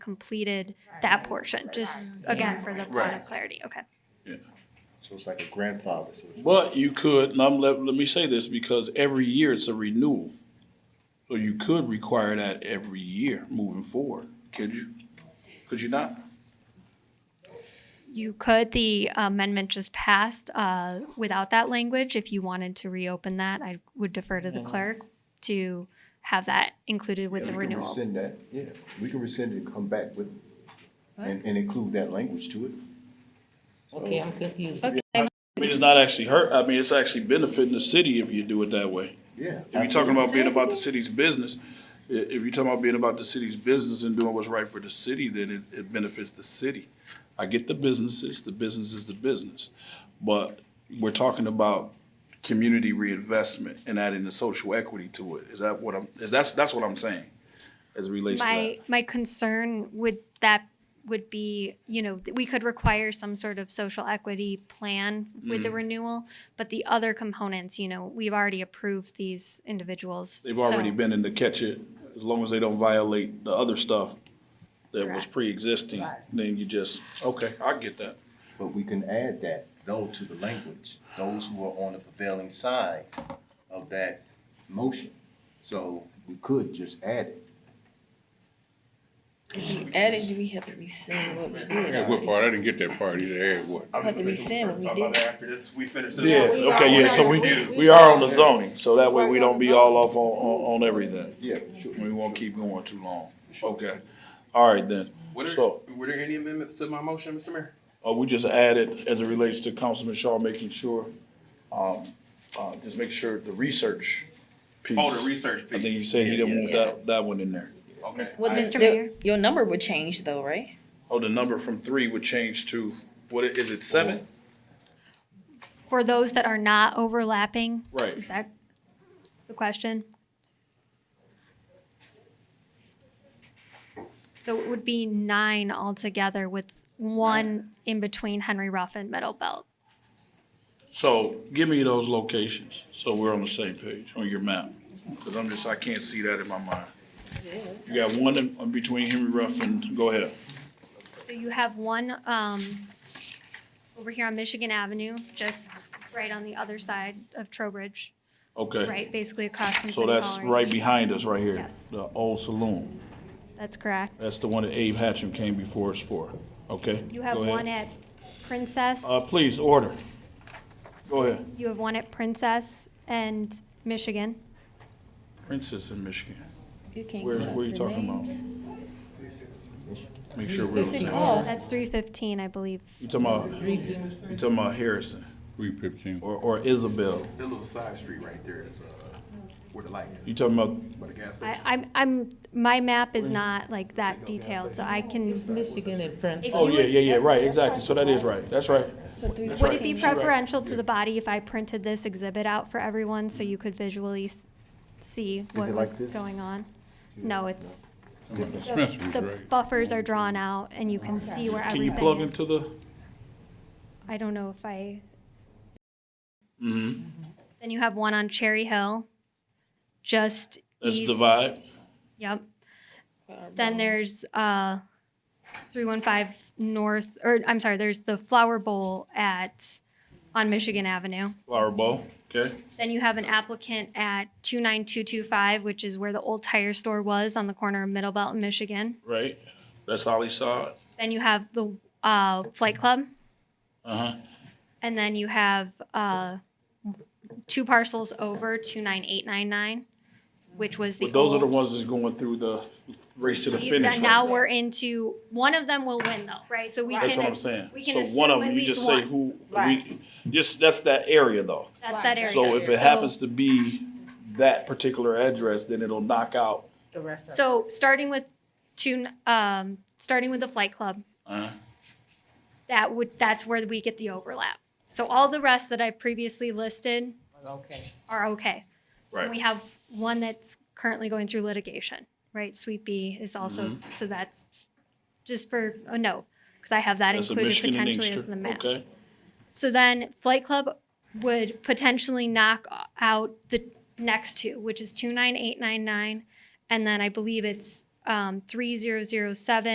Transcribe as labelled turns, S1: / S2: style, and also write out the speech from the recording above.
S1: completed that portion, just again, for the point
S2: Mm-hmm. Right.
S1: of clarity, okay?
S3: So it's like a grandfather. so it's-
S2: But you could, and I'm, let, let me say this, because every year it's a renewal. So you could require that every year moving forward, could you? Could you not?
S1: You could, the amendment just passed, uh, without that language, if you wanted to reopen that, I would defer to
S2: Mm-hmm.
S1: the clerk to have that included with the
S3: We can
S1: renewal.
S3: rescind that, yeah, we can rescind it and come back with, and, and include that language to it.
S4: Okay, I'm confused.
S2: I mean, it's not actually hurt, I mean, it's actually benefiting the city if you do it that way.
S3: Yeah.
S2: If you're talking about being about the city's business, i- if you're talking about being about the city's business and doing what's right for the city, then it, it benefits the city. I get the businesses, the business is the business, but we're talking about community reinvestment and adding the social equity to it. Is that what I'm, is that's, that's what I'm saying as it relates to
S1: My,
S2: that.
S1: my concern would that would be, you know, th- we could require some sort of social equity plan with
S2: Mm.
S1: the renewal, but the other components, you know, we've already approved these individuals.
S2: They've
S1: so-
S2: already been in the catch it, as long as they don't violate the other stuff that was
S1: Correct.
S2: pre-existing, then you just, okay, I get that.
S3: But we can add that, though, to the language, those who are on the prevailing side of that motion. So we could just add it.
S4: If we added, do we have to rescind what we
S5: Yeah,
S4: did?
S5: what part? I didn't get that part either. Hey, what?
S4: Have to rescind what we
S6: Talk about
S4: did.
S6: that After this, we finish this.
S2: Yeah,
S6: up.
S2: okay, yeah, so we, we are on the zoning, so that way we don't be all off on, on, on everything.
S3: Yeah, sure.
S2: We won't keep going too long. Okay, all right then.
S6: Were there,
S2: So,
S6: were there any amendments to my motion, Mr. Mayor?
S2: uh, we just added, as it relates to Councilman Shaw, making sure, um, uh, just make sure the research piece.
S6: Oh, the research
S2: I
S6: piece.
S2: think you said he didn't want that, that one in there.
S6: Okay.
S4: Miss- what
S6: I-
S1: Mr.
S4: the-
S1: Mayor?
S4: Your number would change though, right?
S2: Oh, the number from three would change to, what, i- is it seven?
S1: For those that are not overlapping?
S2: Right.
S1: Is that the question? So it would be nine altogether with one in between Henry Ruff and Middle Belt.
S2: So give me those locations, so we're on the same page on your map, because I'm just, I can't see that in my mind. You got one in, in between Henry Ruff and, go ahead.
S1: So you have one, um, over here on Michigan Avenue, just right on the other side of Trowbridge,
S2: Okay,
S1: right, basically across from
S2: so
S1: City
S2: that's
S1: Hall.
S2: right behind us, right here.
S1: Yes.
S2: The old saloon.
S1: That's correct.
S2: That's the one that Abe Hatcham came before us for, okay?
S1: You have
S2: go ahead.
S1: one at Princess.
S2: Uh, please, order. Go ahead.
S1: You have one at Princess and Michigan.
S2: Princess in Michigan.
S4: You can't.
S2: Where, where you talking about? Make sure we're on the same. You
S4: Oh,
S1: That's three fifteen, I believe.
S2: talking about, you talking about Harrison
S5: Three fifteen.
S2: or, or Isabel?
S6: That little side street right there is, uh, where the light is,
S2: You talking about
S6: by the gas
S1: I,
S6: station.
S1: I'm, I'm, my map is not like that detailed, so I can,
S4: Michigan and Princeton.
S2: Oh, yeah, yeah, yeah, right, exactly, so that is right, that's right.
S1: would it be preferential to the body if I printed this exhibit out for everyone so you could visually s- see what
S3: it like
S1: was
S3: this?
S1: going on? No, it's,
S5: Spencer was
S1: the
S5: right.
S1: buffers are drawn out and you can see where
S2: Can you
S1: everything
S2: plug
S1: is.
S2: into the,
S1: I don't know if I.
S2: Mm-hmm.
S1: Then you have one on Cherry Hill, just
S2: that's
S1: east.
S2: the vibe?
S1: Yep. Then there's uh, 315 North, or I'm sorry, there's the Flower Bowl at, on Michigan Avenue.
S2: Flower Bowl, okay?
S1: Then you have an applicant at 29225, which is where the old tire store was on the corner of Middle Belt and Michigan.
S2: Right, that's all he saw,
S1: Then you have the uh, Flight Club.
S2: uh-huh,
S1: And then you have uh, two parcels over, 29899, which was the
S2: but those are the
S1: old-
S2: ones that's going through the race to the
S1: We've
S2: finish
S1: done,
S2: line.
S1: now we're into, one of them will win though, right? So we can.
S2: That's what I'm saying,
S1: We can
S2: so one of
S1: assume at
S2: them, you
S1: least
S2: just say
S1: one.
S2: who, we, just, that's that area though.
S1: That's that area.
S2: So if it happens to be that particular address, then it'll knock out,
S1: So starting with two, um, starting with the flight club,
S2: uh,
S1: that would, that's where we get the overlap. So all the rest that I previously listed
S4: Okay.
S1: are okay. And We
S2: right,
S1: have one that's currently going through litigation, right? Sweet B is also,
S2: Mm-hmm.
S1: so that's just for a note, because I have that
S2: that's a
S1: included
S2: Michigan and
S1: potentially as
S2: Inkster,
S1: the map.
S2: okay?
S1: So then Flight Club would potentially knock out the next two, which is 29899, and then I believe it's um, 3007